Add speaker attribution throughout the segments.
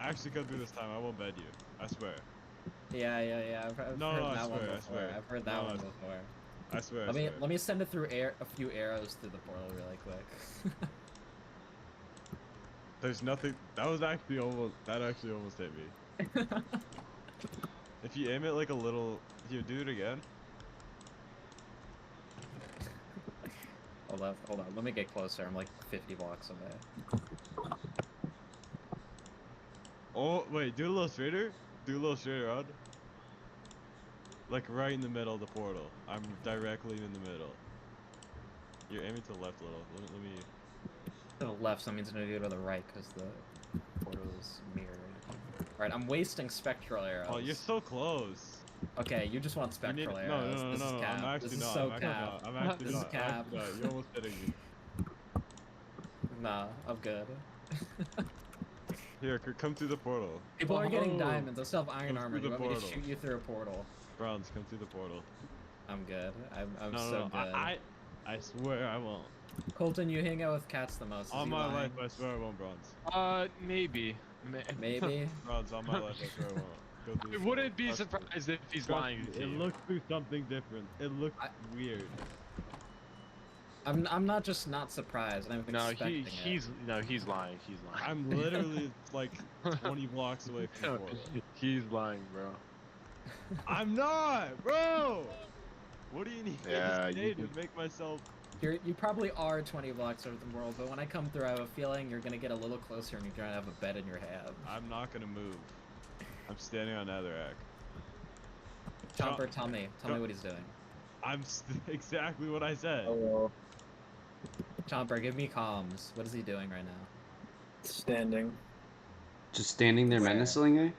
Speaker 1: actually gonna do this time. I won't bed you. I swear.
Speaker 2: Yeah, yeah, yeah. I've, I've
Speaker 1: No,
Speaker 2: heard
Speaker 1: no, I
Speaker 2: that one
Speaker 1: swear, I
Speaker 2: before.
Speaker 1: swear.
Speaker 2: have heard that
Speaker 1: No, I
Speaker 2: one
Speaker 1: swear.
Speaker 2: before.
Speaker 1: I swear.
Speaker 2: Let
Speaker 1: I
Speaker 2: me
Speaker 1: swear.
Speaker 2: let me send it through air a few arrows through the portal really quick.
Speaker 1: There's nothing. That was actually almost. That actually almost hit me. if you aim it like a little, here, do it again.
Speaker 2: hold on, hold on. Let me get closer. I'm like 50 blocks away.
Speaker 1: Oh wait, do it a little straighter. Do a little straighter, Rod. Like right in the middle of the portal. I'm directly in the middle. You're aiming to the left a little. Let me. Let me
Speaker 2: To the left, so that means I'm gonna go to the right because the portal is mirrored. All right, I'm wasting spectral arrows.
Speaker 1: oh, you're so close.
Speaker 2: Okay, you just want
Speaker 1: You need- no,
Speaker 2: spectral
Speaker 1: no,
Speaker 2: arrows.
Speaker 1: no, no,
Speaker 2: this
Speaker 1: no,
Speaker 2: is
Speaker 1: no,
Speaker 2: cap.
Speaker 1: I'm actually
Speaker 2: this is
Speaker 1: not.
Speaker 2: so
Speaker 1: I'm actually
Speaker 2: cap.
Speaker 1: not. I'm actually
Speaker 2: this
Speaker 1: not.
Speaker 2: is
Speaker 1: I'm
Speaker 2: cap.
Speaker 1: actually not. You're almost hitting me.
Speaker 2: Nah, I'm good.
Speaker 1: Here, c- come through the portal.
Speaker 2: People are getting
Speaker 1: Oh.
Speaker 2: diamonds. I still have iron
Speaker 1: Go
Speaker 2: armor.
Speaker 1: through
Speaker 2: You
Speaker 1: the
Speaker 2: want me to
Speaker 1: portal.
Speaker 2: shoot you through a portal?
Speaker 1: Bronze, come through the portal.
Speaker 2: I'm good. I'm, I'm
Speaker 1: no, no,
Speaker 2: so
Speaker 1: no.
Speaker 2: good.
Speaker 1: I, I, I swear I won't.
Speaker 2: Colton, you hang out with cats the most. Is
Speaker 1: On
Speaker 2: he
Speaker 1: my
Speaker 2: lying?
Speaker 1: life, I swear I won't bronze.
Speaker 3: Uh, maybe. Ma-
Speaker 2: Maybe.
Speaker 1: Bronze, on my life, I swear I won't. Go through
Speaker 3: I
Speaker 1: this portal.
Speaker 3: wouldn't be
Speaker 1: Trust me.
Speaker 3: surprised if he's
Speaker 1: Trust
Speaker 3: lying
Speaker 1: me,
Speaker 3: to
Speaker 1: It
Speaker 3: you.
Speaker 1: looked through something different. It looked
Speaker 2: I-
Speaker 1: weird.
Speaker 2: I'm, I'm not just not surprised. I'm
Speaker 3: No,
Speaker 2: expecting it.
Speaker 3: he he's no, he's lying. He's lying.
Speaker 1: I'm literally like 20 blocks away from the portal.
Speaker 3: he's lying, bro.
Speaker 1: I'm not, bro. What do you need
Speaker 3: Yeah,
Speaker 1: to say
Speaker 3: you
Speaker 1: to
Speaker 3: can-
Speaker 1: make myself?
Speaker 2: You're, you probably are 20 blocks over the world, but when I come through, I have a feeling you're gonna get a little closer and you're gonna have a bed in your hand.
Speaker 1: I'm not gonna move. I'm standing on Netherrack. Tom-
Speaker 2: Chomper, tell me, tell me
Speaker 1: Chom-
Speaker 2: what he's doing.
Speaker 1: I'm st- exactly what I said.
Speaker 2: Oh,
Speaker 4: Hello.
Speaker 2: Chomper, give me comms. What is he doing right now?
Speaker 4: Standing.
Speaker 5: Just standing there
Speaker 2: Where?
Speaker 5: menacingly?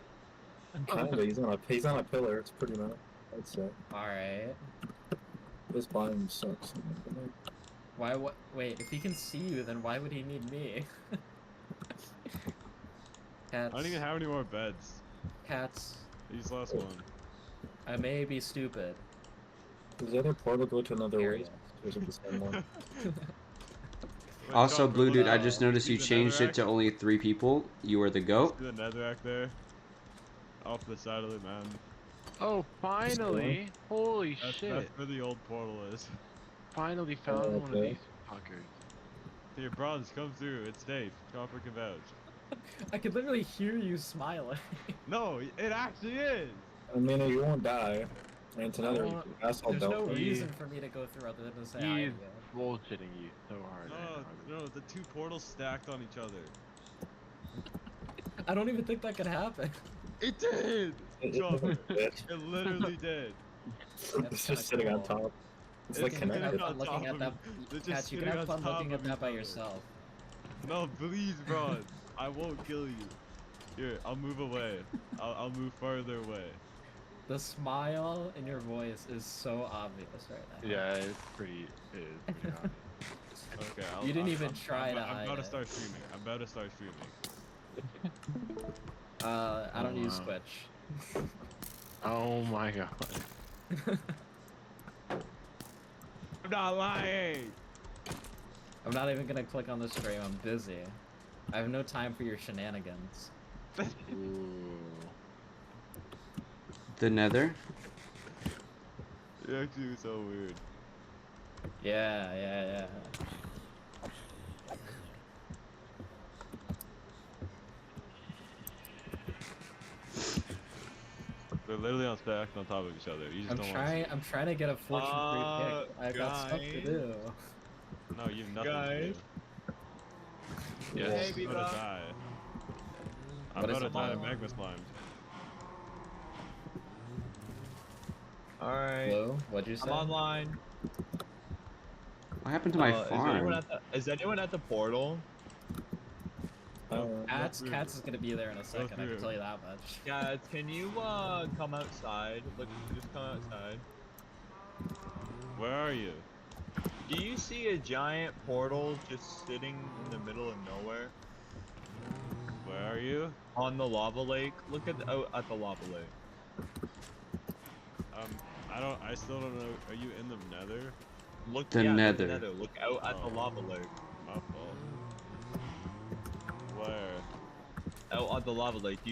Speaker 4: Kinda. He's on a he's on a pillar. It's pretty much. That's it.
Speaker 2: All right.
Speaker 4: This biome sucks.
Speaker 2: Why? What? Wait. If he can see you, then why would he need me?
Speaker 1: I
Speaker 2: cats.
Speaker 1: don't even have any more beds.
Speaker 2: Cats.
Speaker 1: These last
Speaker 2: oh.
Speaker 1: one.
Speaker 2: I may be stupid.
Speaker 4: Does the other portal go to another
Speaker 2: Here
Speaker 4: way?
Speaker 2: he is.
Speaker 4: Or is it the same one?
Speaker 1: Wait,
Speaker 5: also,
Speaker 1: Chopper,
Speaker 5: Blue
Speaker 1: look
Speaker 5: Dude, I
Speaker 1: at-
Speaker 5: just noticed
Speaker 1: see
Speaker 5: you
Speaker 1: the
Speaker 5: changed it
Speaker 1: Netherrack?
Speaker 5: to Oh. only three people. You are the goat.
Speaker 1: See the Netherrack there. Off the side of the man.
Speaker 3: Oh, finally! Holy
Speaker 1: That's,
Speaker 3: shit!
Speaker 1: that's where the old portal is.
Speaker 3: Finally found
Speaker 4: Oh,
Speaker 3: one of
Speaker 4: okay.
Speaker 3: these fuckers.
Speaker 1: Here, bronze, come through. It's safe. Copper can vouch.
Speaker 2: I could literally hear you smiling.
Speaker 1: No, it actually is.
Speaker 4: I mean, you won't die. And it's another
Speaker 3: Uh,
Speaker 4: asshole
Speaker 2: There's no
Speaker 4: belt.
Speaker 3: He-
Speaker 2: reason for me to go through other than to say I
Speaker 3: He
Speaker 2: am.
Speaker 3: is bullshitting you so hard.
Speaker 1: No, Oh, no, the two portals stacked on each other.
Speaker 2: I don't even think that could happen.
Speaker 1: It did.
Speaker 4: It- it
Speaker 1: Chopper,
Speaker 4: doesn't fit.
Speaker 1: it literally did.
Speaker 4: It's
Speaker 2: kinda
Speaker 4: just sitting on
Speaker 2: cool.
Speaker 4: top. It's
Speaker 1: It's
Speaker 4: like
Speaker 1: just
Speaker 2: You can have
Speaker 4: connected.
Speaker 1: sitting on
Speaker 2: fun looking
Speaker 1: top
Speaker 2: at
Speaker 1: of
Speaker 2: that.
Speaker 1: it. They're just
Speaker 2: Cats, you can
Speaker 1: sitting
Speaker 2: have
Speaker 1: on
Speaker 2: fun
Speaker 1: top
Speaker 2: looking
Speaker 1: of
Speaker 2: at that by
Speaker 1: each other.
Speaker 2: yourself.
Speaker 1: No, please, bronze. I won't kill you. Here, I'll move away. I'll, I'll move farther away.
Speaker 2: The smile in your voice is so obvious right now.
Speaker 3: Yeah, it's pretty. It is pretty hard.
Speaker 1: Okay. I'll,
Speaker 2: You didn't
Speaker 1: I'm-
Speaker 2: even
Speaker 1: I'm,
Speaker 2: try
Speaker 1: I'm,
Speaker 2: to
Speaker 1: I'm
Speaker 2: hide
Speaker 1: about to
Speaker 2: it.
Speaker 1: start streaming. I'm about to start streaming.
Speaker 2: Uh, I don't
Speaker 3: Oh,
Speaker 2: use
Speaker 3: wow.
Speaker 2: Twitch.
Speaker 3: Oh my god.
Speaker 1: I'm not lying.
Speaker 2: I'm not even gonna click on the stream. I'm busy. I have no time for your shenanigans.
Speaker 3: Ooh.
Speaker 5: The nether?
Speaker 1: You're actually so weird.
Speaker 2: Yeah, yeah, yeah.
Speaker 1: They're literally on stacked on top of each other. You just
Speaker 2: I'm
Speaker 1: don't
Speaker 2: trying. I'm trying to get a fortune free
Speaker 1: Uh,
Speaker 2: pick. I've got stuff to
Speaker 1: guys?
Speaker 2: do.
Speaker 1: Want to see. No, you have nothing.
Speaker 3: Guys?
Speaker 1: Yes.
Speaker 3: Baby
Speaker 1: I'm gonna die. I'm
Speaker 2: What is
Speaker 1: gonna
Speaker 2: it,
Speaker 1: die.
Speaker 2: Mom?
Speaker 1: Magma slime.
Speaker 6: Alright.
Speaker 2: Hello? What'd you say?
Speaker 6: I'm online.
Speaker 5: What happened to my
Speaker 6: Uh, Is anyone,
Speaker 5: farm?
Speaker 6: at the, is anyone at the portal?
Speaker 4: Uh,
Speaker 2: Cats,
Speaker 1: through.
Speaker 2: Cats is gonna be there in a second. I
Speaker 1: through.
Speaker 2: can tell you that much.
Speaker 6: Guys, can you uh come outside? Like, just come outside.
Speaker 1: Where are you?
Speaker 6: Do you see a giant portal just sitting in the middle of nowhere
Speaker 1: Where are you?
Speaker 6: on the lava lake? Look at the, out at the lava lake.
Speaker 1: Um, I don't. I still don't know. Are you in the Nether?
Speaker 6: Look
Speaker 5: The
Speaker 6: yeah,
Speaker 5: nether.
Speaker 6: The nether. Look out at
Speaker 1: Oh.
Speaker 6: the lava lake.
Speaker 1: My fault. Where?
Speaker 6: oh, on the lava lake. Do